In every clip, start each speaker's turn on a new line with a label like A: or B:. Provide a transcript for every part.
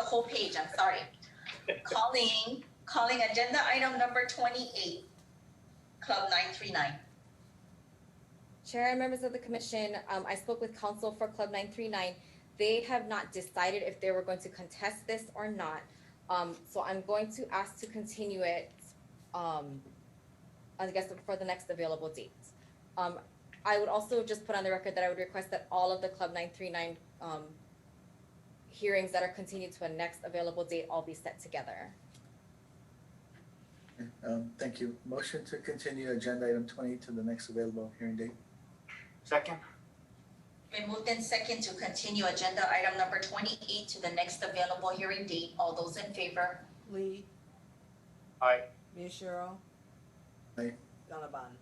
A: whole page, I'm sorry. Calling, calling agenda item number twenty-eight, Club nine three nine.
B: Chair and members of the commission, um, I spoke with counsel for Club nine three nine. They have not decided if they were going to contest this or not. Um, so I'm going to ask to continue it, um, I guess for the next available date. Um, I would also just put on the record that I would request that all of the Club nine three nine, um, hearings that are continued to a next available date all be set together.
C: Um, thank you. Motion to continue agenda item twenty to the next available hearing date.
D: Second?
A: Been moved in second to continue agenda item number twenty-eight to the next available hearing date. All those in favor?
E: Lee.
D: Aye.
E: Miyashiro.
C: Aye.
E: Gannabon.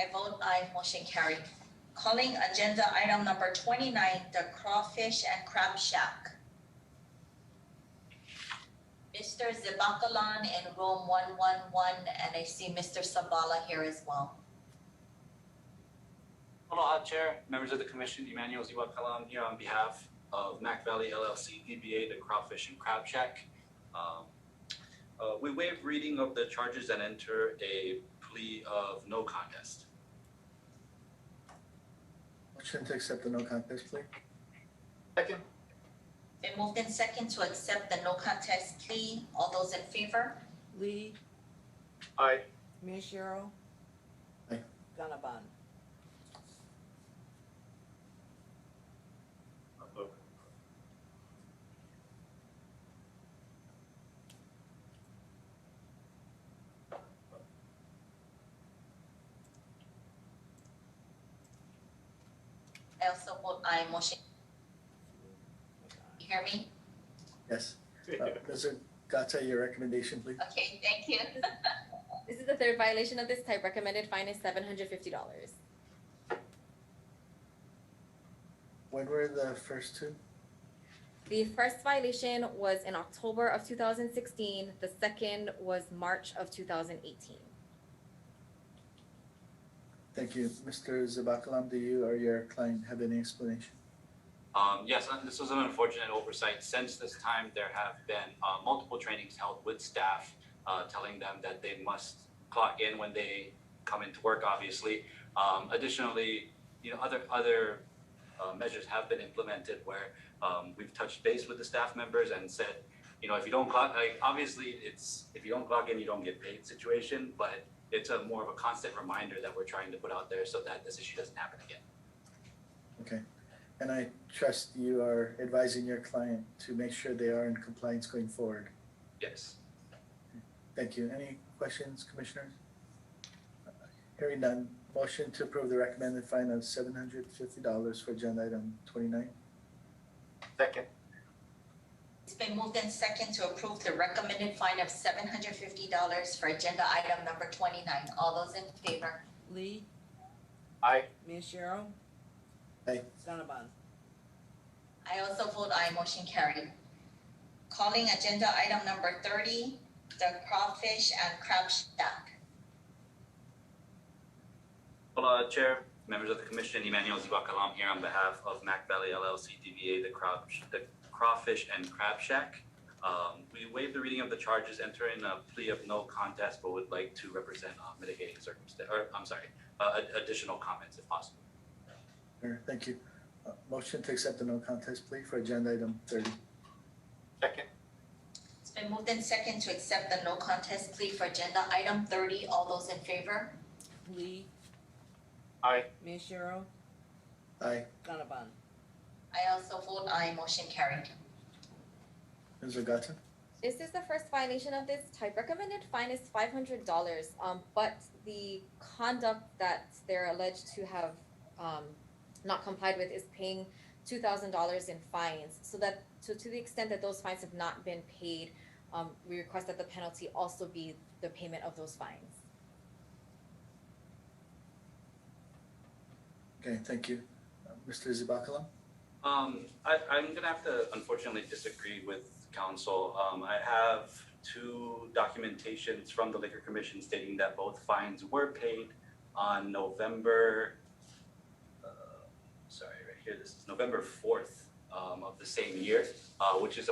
A: I vote aye, motion carried. Calling agenda item number twenty-nine, the Crawfish and Crab Shack. Mr. Zibakalan in room one one one, and I see Mr. Sabala here as well.
F: Aloha Chair, members of the commission, Emmanuel Ziwakalam here on behalf of Mac Valley LLC, DBA E The Crawfish and Crab Shack. Um, uh, We waive reading of the charges and enter a plea of no contest.
C: Motion to accept the no contest plea.
D: Second?
A: Been moved in second to accept the no contest plea. All those in favor?
E: Lee.
D: Aye.
E: Miyashiro.
C: Aye.
E: Gannabon.
A: I also vote aye, motion, you hear me?
C: Yes. Uh, Mr. Gata, your recommendation, please.
A: Okay, thank you.
B: This is the third violation of this type. Recommended fine is seven hundred fifty dollars.
C: When were the first two?
B: The first violation was in October of 2016. The second was March of 2018.
C: Thank you. Mr. Zabakalam, do you or your client have any explanation?
F: Um, Yes, and this was an unfortunate oversight. Since this time, there have been uh, multiple trainings held with staff uh, telling them that they must clock in when they come into work, obviously. Um, Additionally, you know, other, other uh, measures have been implemented where um, we've touched base with the staff members and said, you know, if you don't clock, like, obviously, it's, if you don't clock in, you don't get paid situation, but it's a more of a constant reminder that we're trying to put out there so that this issue doesn't happen again.
C: Okay. And I trust you are advising your client to make sure they are in compliance going forward.
F: Yes.
C: Thank you. Any questions, commissioners? Hearing none, motion to approve the recommended fine of seven hundred fifty dollars for agenda item twenty-nine.
D: Second?
A: It's been moved in second to approve the recommended fine of seven hundred fifty dollars for agenda item number twenty-nine. All those in favor?
E: Lee.
D: Aye.
E: Miyashiro.
C: Aye.
E: Gannabon.
A: I also vote aye, motion carried. Calling agenda item number thirty, the crawfish and crab shack.
F: Hola, Chair, members of the commission, Emmanuel Ziwakalam here on behalf of Mac Valley LLC DBA The Crab, The Crawfish and Crab Shack. Um, we waive the reading of the charges, enter in a plea of no contest, but would like to represent uh, mitigating circumstance, or, I'm sorry, uh, ad- additional comments if possible.
C: Sure, thank you. Uh, Motion to accept the no contest plea for agenda item thirty.
D: Second?
A: It's been moved in second to accept the no contest plea for agenda item thirty. All those in favor?
E: Lee.
D: Aye.
E: Miyashiro.
C: Aye.
E: Gannabon.
A: I also vote aye, motion carried.
C: Ms. Ogata?
B: This is the first violation of this type. Recommended fine is five hundred dollars. Um, but the conduct that they're alleged to have um, not complied with is paying two thousand dollars in fines. So that so to the extent that those fines have not been paid, um, we request that the penalty also be the payment of those fines.
C: Okay, thank you. Uh, Mr. Zibakalam?
F: Um, I, I'm gonna have to unfortunately disagree with council. Um, I have two documentations from the liquor commission stating that both fines were paid on November, uh, sorry, right here, this is November fourth, um, of the same year, uh, which is